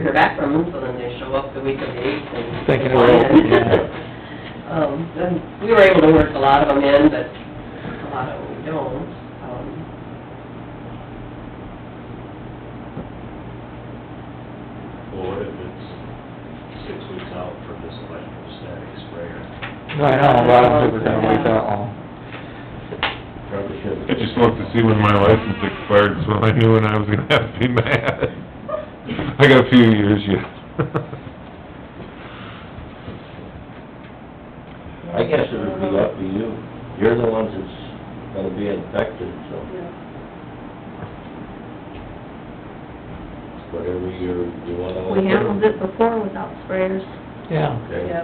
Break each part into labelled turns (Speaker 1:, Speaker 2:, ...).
Speaker 1: They're back from Newfoundland, they show up the week of the eighth and.
Speaker 2: Thinking they're all-
Speaker 1: Um, and we were able to work a lot of them in, but a lot of them we don't, um.
Speaker 3: Well, if it's six weeks out for this electrostatic sprayer?
Speaker 2: I know, but I don't think we're gonna wait that long.
Speaker 3: Probably should.
Speaker 4: I just looked to see when my license expired, so I knew when I was gonna have to be mad. I got a few years yet.
Speaker 3: I guess it would be up to you. You're the ones that's gonna be infected, so. Whatever you're, you wanna.
Speaker 5: We handled it before without sprayers.
Speaker 2: Yeah,
Speaker 3: Okay.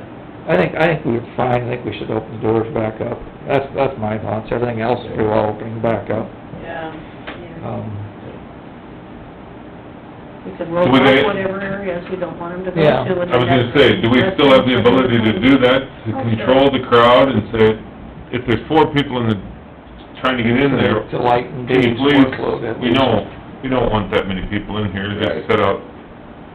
Speaker 2: I think, I think we're fine, I think we should open the doors back up. That's, that's my thoughts, everything else is well opening back up.
Speaker 5: Yeah.
Speaker 2: Um,
Speaker 5: We could roll out
Speaker 4: Would they-
Speaker 5: whatever areas we don't want them to go
Speaker 2: Uh, Yeah.
Speaker 5: to. and
Speaker 4: I was gonna say, do we still have the ability to do that, to control the crowd and say, if there's four people in the, trying to get in there,
Speaker 2: To lighten
Speaker 4: can you
Speaker 2: Dave's
Speaker 4: please,
Speaker 2: workload at
Speaker 4: we
Speaker 2: least
Speaker 4: know, we don't want that many people in here,
Speaker 3: Right.
Speaker 4: just set up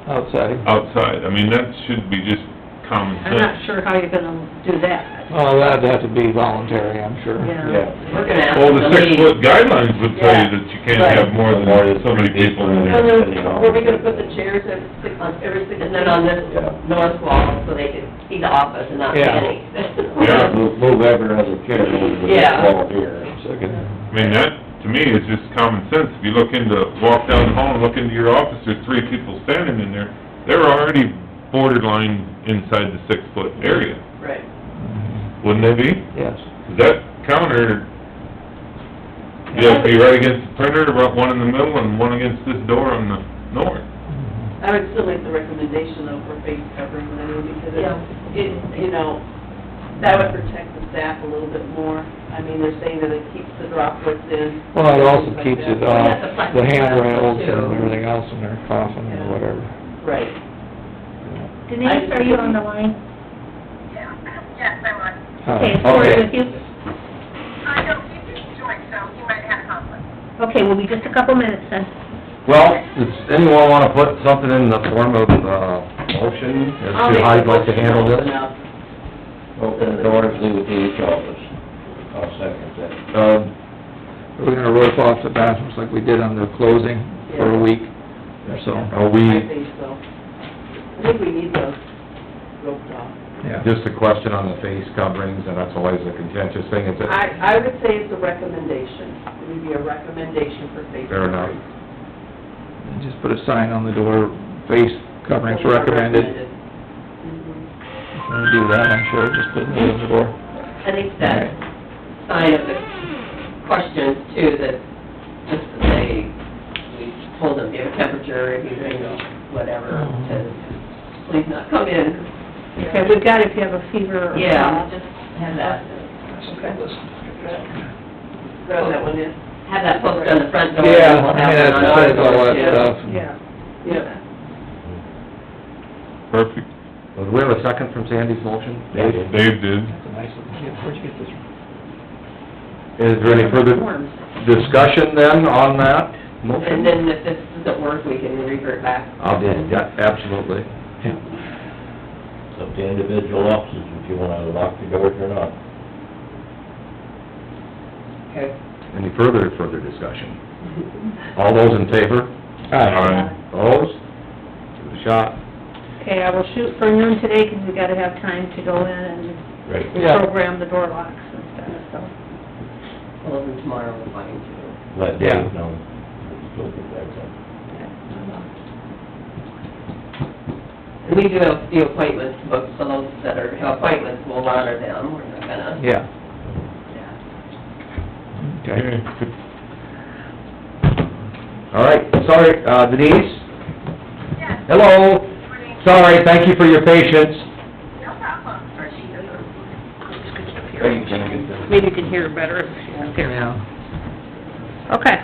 Speaker 2: outside.
Speaker 4: Uh, outside. I mean, that should be just common
Speaker 5: I'm not
Speaker 4: sense.
Speaker 5: sure how you're gonna do that.
Speaker 2: Oh, that'd have to be voluntary, I'm sure.
Speaker 5: Yeah.
Speaker 3: Yeah.
Speaker 1: We're gonna ask
Speaker 4: Well,
Speaker 1: them to
Speaker 4: the
Speaker 1: leave.
Speaker 4: six-foot guidelines would tell you that you can't have more than
Speaker 3: More than
Speaker 4: so many
Speaker 3: three
Speaker 4: people
Speaker 3: people.
Speaker 4: in
Speaker 1: And
Speaker 4: there.
Speaker 1: then, were we gonna put the chairs every six, on every six, and then on this
Speaker 3: Yeah.
Speaker 1: north wall, so they could see the office and not
Speaker 2: Yeah.
Speaker 1: panic?
Speaker 4: Yeah.
Speaker 3: Move move every other chair over to the
Speaker 1: Yeah.
Speaker 3: wall here.
Speaker 2: So good.
Speaker 4: I mean, that, to me, is just common sense. If you look into, walk down the hall and look into your office, there's three people standing in there, they're already borderline inside the six-foot area,
Speaker 1: Right.
Speaker 4: wouldn't they be?
Speaker 2: Yes.
Speaker 4: That counter, you'd be right against the printer, about one in the middle and one against this door on the north.
Speaker 6: I would still like the recommendation though for face covering, I mean, because
Speaker 1: Yeah.
Speaker 6: it, it, you know, that would protect the staff a little bit more. I mean, they're saying that it keeps the droplets in.
Speaker 2: Well, it also
Speaker 6: things like
Speaker 2: keeps
Speaker 6: that.
Speaker 2: it uh, off the handrails and everything else when they're coughing or whatever.
Speaker 6: Right.
Speaker 5: Denise, are you on the line?
Speaker 7: Yes, I was.
Speaker 2: Uh,
Speaker 5: Okay, Cory with you?
Speaker 7: I don't, you just joined, so you might have had a conflict.
Speaker 5: Okay, we'll be just a couple minutes then.
Speaker 8: Well, does anyone wanna put something in the form of, uh, motion as
Speaker 6: I'll
Speaker 8: to
Speaker 6: make
Speaker 8: how
Speaker 6: a
Speaker 8: you'd like to
Speaker 6: motion
Speaker 8: handle
Speaker 6: open
Speaker 8: this?
Speaker 6: up.
Speaker 3: Open the doors, leave it to each office. I'll second that.
Speaker 8: Um,
Speaker 2: We're gonna rope off the bathrooms like we did on the closing for a week or so.
Speaker 8: are
Speaker 6: I
Speaker 8: we,
Speaker 6: think so. I think we need those roped off.
Speaker 2: Yeah.
Speaker 8: just a question on the face coverings, and that's always a contentious thing, is it,
Speaker 6: I, I would say it's a recommendation. It would be a recommendation for face
Speaker 8: fair enough?
Speaker 6: covering.
Speaker 2: And Just put a sign on the door, face coverings recommended. If we
Speaker 6: Mhm.
Speaker 2: do that, I'm sure, just put it on the door.
Speaker 1: I think that sign of the questions too, that just to say, we told them, give a temperature, if you drink, whatever,
Speaker 2: Mm-hmm.
Speaker 1: to please not come in.
Speaker 5: Okay, we've got if you have a fever or
Speaker 1: Yeah,
Speaker 5: cough.
Speaker 1: just have that,
Speaker 6: Throw that one in.
Speaker 1: have that posted on the front door. and
Speaker 2: Yeah,
Speaker 1: we'll have
Speaker 2: I mean,
Speaker 1: it
Speaker 2: that
Speaker 1: on our
Speaker 2: says all
Speaker 1: door,
Speaker 2: that
Speaker 1: too.
Speaker 2: stuff.
Speaker 5: Yeah.
Speaker 6: Yeah.
Speaker 4: Perfect.
Speaker 8: Well, Do we have a second from Sandy's motion?
Speaker 4: Dave did.
Speaker 2: That's a nice little, yeah, where'd you get this?
Speaker 8: Is there any further
Speaker 6: Forms.
Speaker 8: discussion then on that
Speaker 1: And
Speaker 8: motion?
Speaker 1: then if this doesn't work, we can revert back.
Speaker 8: I'll do, it, yeah, absolutely.
Speaker 3: It's up to individual offices if you wanna lock the doors or not.
Speaker 1: Okay.
Speaker 8: Any further, further discussion? All those in favor?
Speaker 4: Aye.
Speaker 8: Opposed? Give it a shot.
Speaker 5: Okay, I will shoot for noon today because we gotta have time to go in and
Speaker 3: Right.
Speaker 2: Yeah.
Speaker 5: program the door locks and stuff, so.
Speaker 1: Well, then tomorrow we'll find you.
Speaker 3: Let
Speaker 2: Yeah.
Speaker 3: Dave know. We'll get that done.
Speaker 1: And we do have the appointments booked, so those that are, have appointments, we'll honor them, we're not gonna.
Speaker 2: Yeah. Okay.
Speaker 4: Okay.
Speaker 8: All right, sorry, uh, Denise?
Speaker 7: Yes,
Speaker 8: Hello?
Speaker 7: morning.
Speaker 8: Sorry, thank you for your patience.
Speaker 7: No problem. Or she doesn't.
Speaker 5: Maybe you can hear her better if she's up here.
Speaker 2: Yeah.
Speaker 5: Okay.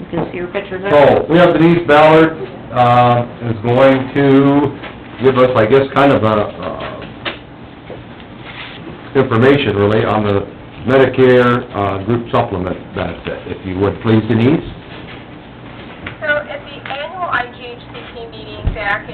Speaker 5: You can see her picture there?
Speaker 8: So, we have Denise Ballard, uh, is going to give us, I guess, kind of a, uh, information really on the Medicare, uh, group supplement benefit, if you would, please, Denise.
Speaker 7: So at the annual IGHCP meeting that back